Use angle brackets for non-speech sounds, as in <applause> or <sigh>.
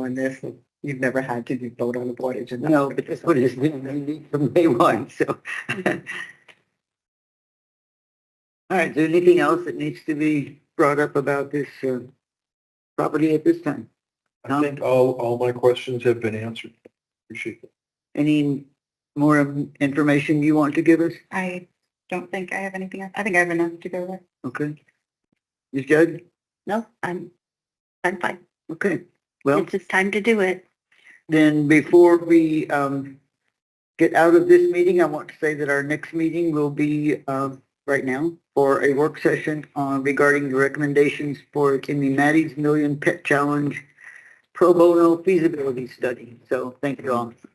on this, and you've never had to do vote on a board agenda. No, but that's what it is. We we need from day one, <laughs> so. All right, is there anything else that needs to be brought up about this uh, property at this time? I Tom? think all, all my questions have been answered. Appreciate it. Any more um, information you want to give us? I don't think I have anything else. I think I have enough to go with. Okay. Ms. Judd? No, I'm, I'm fine. Okay. Well, just time to do it. then before we um, get out of this meeting, I want to say that our next meeting will be uh, right now for a work session on regarding the recommendations for Kimmy Maddie's Million Pet Challenge pro bono feasibility study. So thank you all.